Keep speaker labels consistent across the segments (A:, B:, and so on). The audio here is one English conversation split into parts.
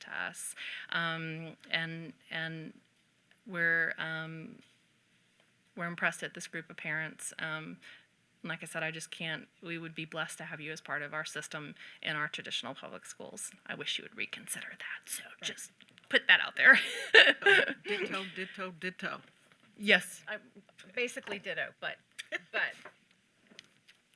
A: to us, um, and and we're um, we're impressed at this group of parents. Um, and like I said, I just can't. We would be blessed to have you as part of our system in our traditional public schools. I wish you would reconsider that. So just put that out there.
B: Ditto, ditto, ditto.
A: yes.
C: I basically ditto, but, but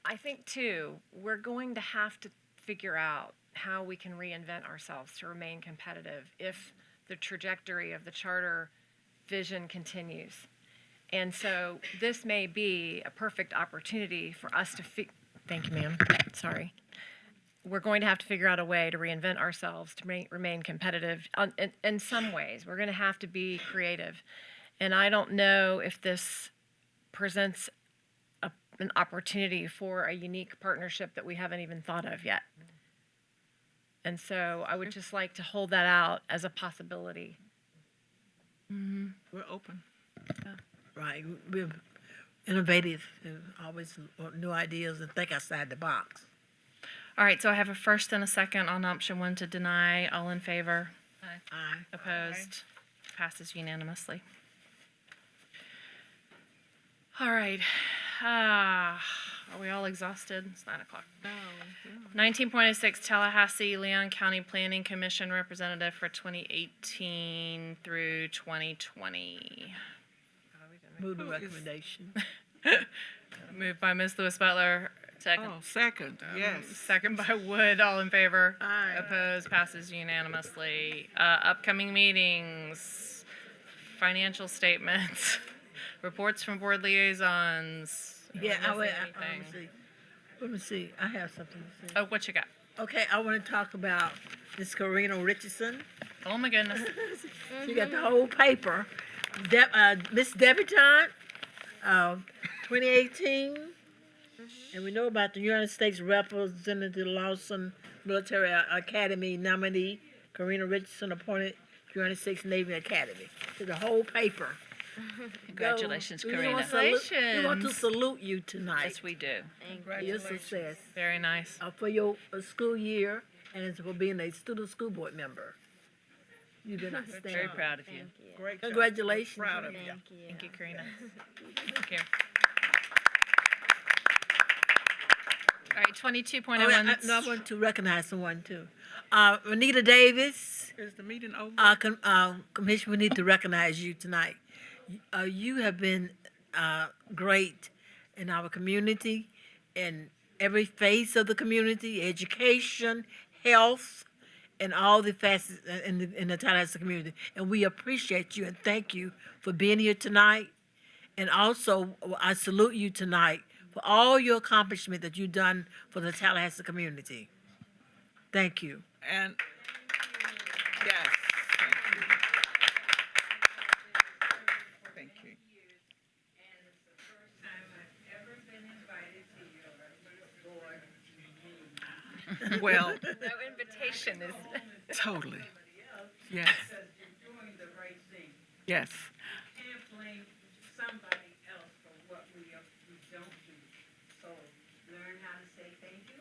C: I think too, we're going to have to figure out how we can reinvent ourselves to remain competitive if the trajectory of the charter vision continues. And so this may be a perfect opportunity for us to fi- thank you, ma'am. Sorry. We're going to have to figure out a way to reinvent ourselves to ma- remain competitive on, in, in some ways. We're going to have to be creative. And I don't know if this presents a, an opportunity for a unique partnership that we haven't even thought of yet. And so I would just like to hold that out as a possibility.
B: We're open.
D: Right, we're innovative, and always want new ideas and think outside the box.
A: All right. So I have a first and a second on option one to deny. All in favor?
D: Aye.
A: Opposed? Passes unanimously. All right. Ah, Are we all exhausted? It's nine o'clock. Nineteen point oh six Tallahassee Leon County Planning Commission Representative for twenty eighteen through twenty twenty.
D: Move the
B: Who is-
D: recommendation.
A: Moved by Ms. Lewis Butler, second.
B: Oh, second, yes.
A: Second by Wood, all in favor?
B: Aye.
A: Opposed, passes unanimously. Uh, upcoming meetings, financial statements, reports from board liaisons. Did I
D: Yeah, I
A: miss
D: would, I,
A: anything?
D: let me see, let me see, I have something to say.
A: Oh, what you got?
D: Okay, I wanna talk about Ms. Corina Richardson.
A: Oh, my goodness.
D: She got the whole paper. De- uh, Miss Debutante, uh, twenty eighteen. And we know about the United States Representative Lawson Military uh, Academy nominee, Karina Richardson, appointed United States Navy Academy. So the whole paper.
E: Congratulations,
D: Go- we
E: Karina.
D: want to salute- We want to salute you tonight.
E: Yes, we do.
D: for your success,
A: Very nice.
D: uh, for your uh, school year, and for being a student school board member. You did not
E: Very
D: stand.
E: proud of you.
B: Great job.
D: Congratulations.
B: Proud of you.
A: Thank you, Karina. Thank you. All right, twenty-two point
D: Oh,
A: oh
D: yeah,
A: one.
D: I, no, I want to recognize someone too. Uh, Renita Davis,
B: Is the meeting over?
D: uh, com, uh, Commission, we need to recognize you tonight. Uh, you have been uh, great in our community, in every phase of the community, education, health, and all the facets uh, in the, in the Tallahassee community. And we appreciate you and thank you for being here tonight. And also, I salute you tonight for all your accomplishment that you've done for the Tallahassee community. Thank you.
B: And, yes, thank you. Thank you. Well,
C: No invitation is.
B: totally. Yes,
F: you're doing the right thing.
B: yes,
F: Can't blame somebody else for what we, are- we don't do. So learn how to say thank you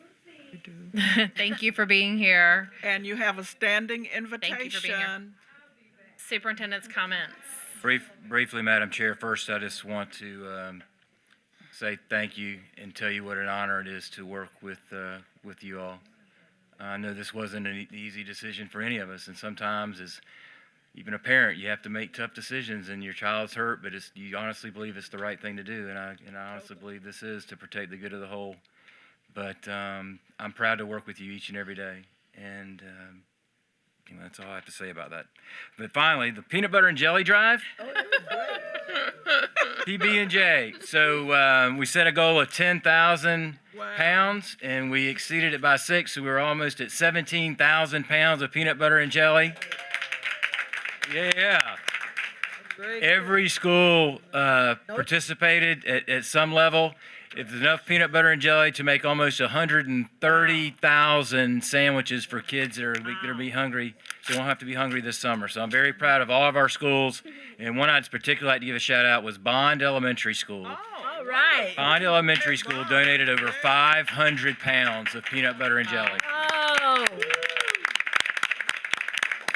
F: and please.
B: you do.
A: Thank you for being here.
B: And you have a standing
A: being here.
B: invitation.
A: Superintendent's comments.
G: Brief, briefly, Madam Chair, first, I just want to um, say thank you and tell you what an honor it is to work with, uh, with you all. I know this wasn't an e- easy decision for any of us, and sometimes as even a parent, you have to make tough decisions, and your child's hurt, but it's, you honestly believe it's the right thing to do, and I, and I honestly believe this is to protect the good of the whole. But um, I'm proud to work with you each and every day, and um, you know, that's all I have to say about that. But finally, the peanut butter and jelly drive. PB and J. So um, we set a goal of ten thousand
B: Wow.
G: pounds, and we exceeded it by six. So we were almost at seventeen thousand pounds of peanut butter and jelly. Yeah.
B: Great.
G: Every school uh, participated at, at some level. If there's enough peanut butter and jelly to make almost 130,000 sandwiches for kids that are that are be hungry, so they won't have to be hungry this summer. So I'm very proud of all of our schools, and one I'd particularly like to give a shout out was Bond Elementary
B: Oh,
G: School.
D: All right.
G: Bond Elementary School donated over 500 pounds of peanut butter and jelly.
C: Oh,